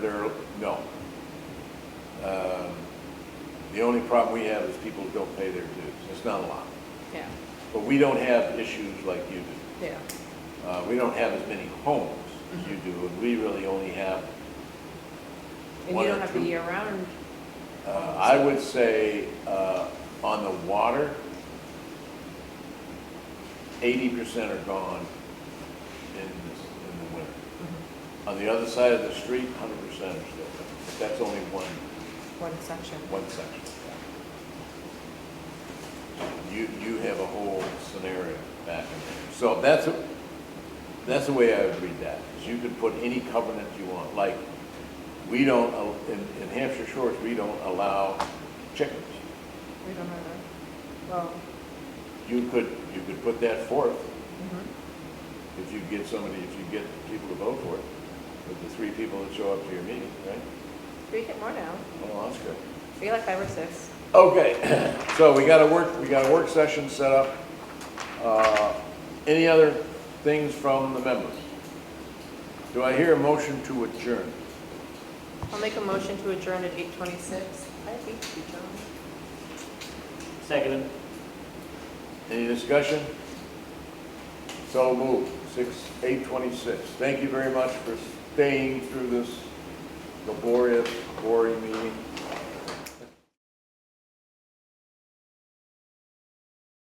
early, no. Um, The only problem we have is people don't pay their dues, it's not a lot. Yeah, But we don't have issues like you do. yeah, Uh, We don't have as many homes as you do, and we really only have, and One you or don't have the two. year-round, uh, I would say, uh, on the water, eighty percent are gone in this, in the winter. Mm-hmm. On the other side of the street, hundred percent are still there, but that's only one one section. one section. You, you have a whole scenario back in there. So that's, a- that's the way I would read that, is you could put any covenant you want, like, we don't, al- in, in Hampshire Shores, we don't allow chickens. We don't have that. Well, You could, you could put that forth, mhm. if you get somebody, if you get people to vote for it, with the three people that show up to your meeting, right? we get more now. Well, that's good. We get like five or six. Okay, so we got a work, we got a work session set up. Uh, Any other things from the members? Do I hear a motion to adjourn? I'll make a motion to adjourn at eight twenty-six. I beat you, John. Second. Any discussion? So moved, six, eight twenty-six. Thank you very much for staying through this laborious, boring meeting.